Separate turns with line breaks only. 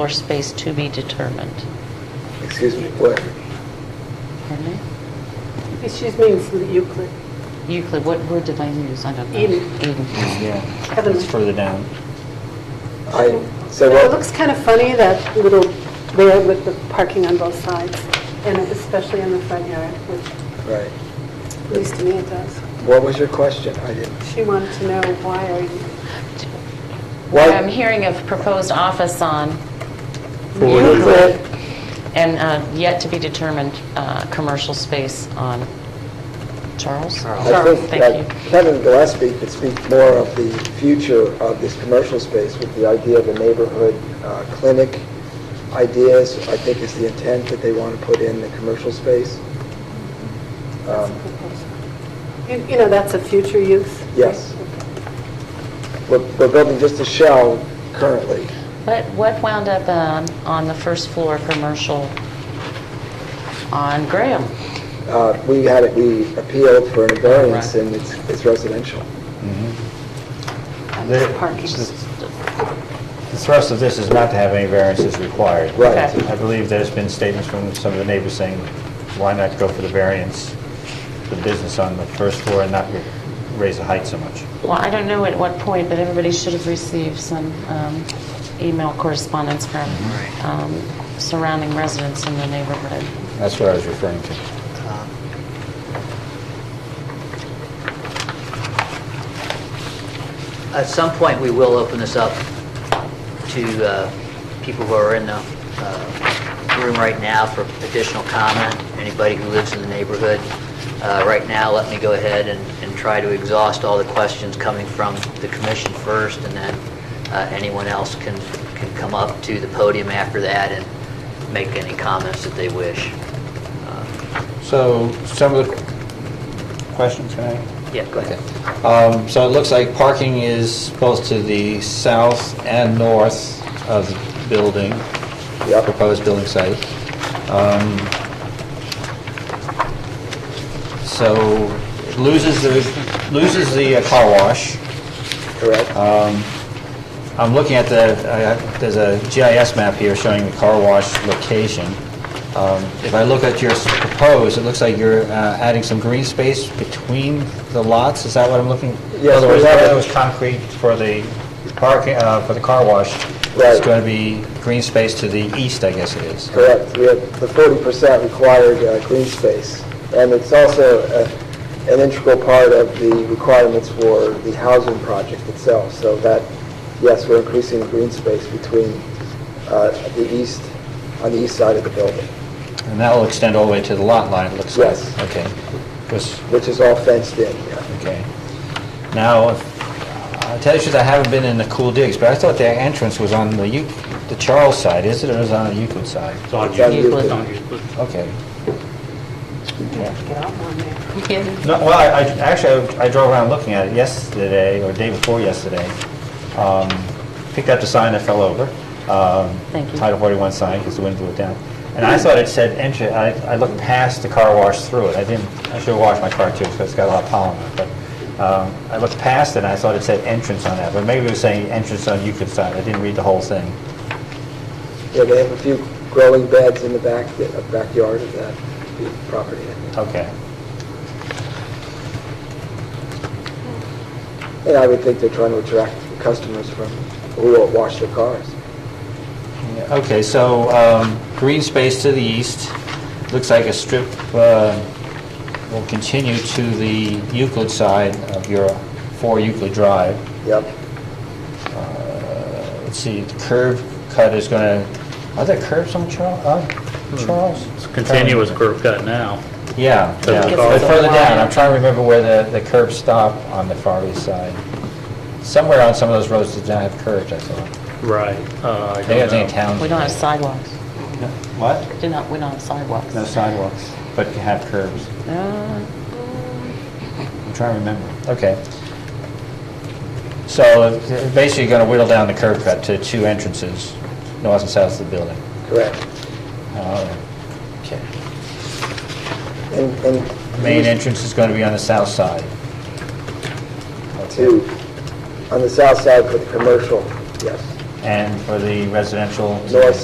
Floor space to be determined.
Excuse me, what?
Pardon me?
Excuse me, it's Euclid.
Euclid, what word did I use? I don't know.
Eden.
Eden.
Yeah,
Heavenly.
it's further down.
I, so
It
what,
looks kind of funny, that little there with the parking on both sides, and especially in the front yard, which,
right.
at least to me it does.
What was your question? I didn't,
She wanted to know, why are you,
Why-
I'm hearing of proposed office on
Euclid.
Euclid and uh, yet to be determined uh, commercial space on Charles?
I think
Thank
that
you.
Kevin Gillespie could speak more of the future of this commercial space with the idea of the neighborhood uh, clinic ideas, I think is the intent that they want to put in the commercial space. Um,
you- you know, that's a future use? right?
Yes. We're we're building just a shell currently.
What what wound up um, on the first floor commercial on Graham?
Uh, We had it, we appealed for an variance, and it's it's residential.
That's Parking.
The thrust of this is not to have any variances required.
Right.
Okay.
I believe there's been statements from some of the neighbors saying, why not go for the variance, the business on the first floor and not raise the height so much?
Well, I don't know at what point, but everybody should have received some um, email correspondence from um, surrounding residents in the neighborhood.
That's what I was referring to.
At some point, we will open this up to uh, people who are in the uh, room right now for additional comment, anybody who lives in the neighborhood. Uh, Right now, let me go ahead and and try to exhaust all the questions coming from the commission first, and then uh, anyone else can can come up to the podium after that and make any comments that they wish. Uh,
So some of the questions, can I?
Yeah, go ahead.
Um, So it looks like parking is both to the south and north of the building, the
Yep.
proposed building site. Um, So it loses the, loses the uh, car wash.
Correct?
Um, I'm looking at the, I- I- there's a GIS map here showing the car wash location. Um, If I look at your s- proposed, it looks like you're uh, adding some green space between the lots, is that what I'm looking?
Yes,
In other words,
we have-
where there was concrete for the parking, uh, for the car wash, it's
Right.
going to be green space to the east, I guess it is.
Correct. We have the 40% required uh, green space. And it's also uh, an integral part of the requirements for the housing project itself. So that, yes, we're increasing the green space between uh, the east, on the east side of the building,
And that will extend all the way to the lot line, it looks like.
Yes.
Okay. Was-
which is all fenced in. yeah.
Okay. Now, if- I'll tell you the truth, I haven't been in the cool digs, but I thought their entrance was on the Eu, the Charles side, is it, or is it on the Euclid side?
It's on
It's
you.
on you.
It's on you.
Okay.
Get out on there.
No, well, I, I- actually, I I drove around looking at it yesterday, or day before yesterday. Um, Picked up the sign that fell over. um,
Thank you.
Title 41 sign, because the wind blew it down. And I thought it said enter, I, I looked past the car wash through it. I didn't, I should have washed my car too, because it's got a lot of pollen on it. But um, I looked past it, and I thought it said entrance on that. But maybe it was saying entrance on Euclid side. I didn't read the whole thing.
Yeah, they have a few growing beds in the back, the backyard of that property.
Okay.
And I would think they're trying to attract customers from, who will wash their cars.
Okay, so um, green space to the east, looks like a strip uh, will continue to the Euclid side of your 4 Euclid Drive.
Yep.
Uh, Let's see, the curb cut is going to, are there curbs on Charl- uh, Charles?
Hmm. It's continuous curve cut now.
Yeah,
Doesn't
yeah.
it
But
go-
further down, I'm trying to remember where the the curbs stop on the far east side. Somewhere on some of those roads did not have curbs, I thought.
Right. Uh, I
They
don't
have any
know.
towns.
We don't have sidewalks.
What?
Do not, we don't have sidewalks.
No sidewalks, but you have curbs.
Uh,
I'm trying to remember. Okay. So uh, basically, you're going to whittle down the curb cut to two entrances, north and south of the building.
Correct.
Uh, Okay.
And, and...
Main entrance is going to be on the south side.
to, on the south side for the commercial, yes.
and for the residential...
North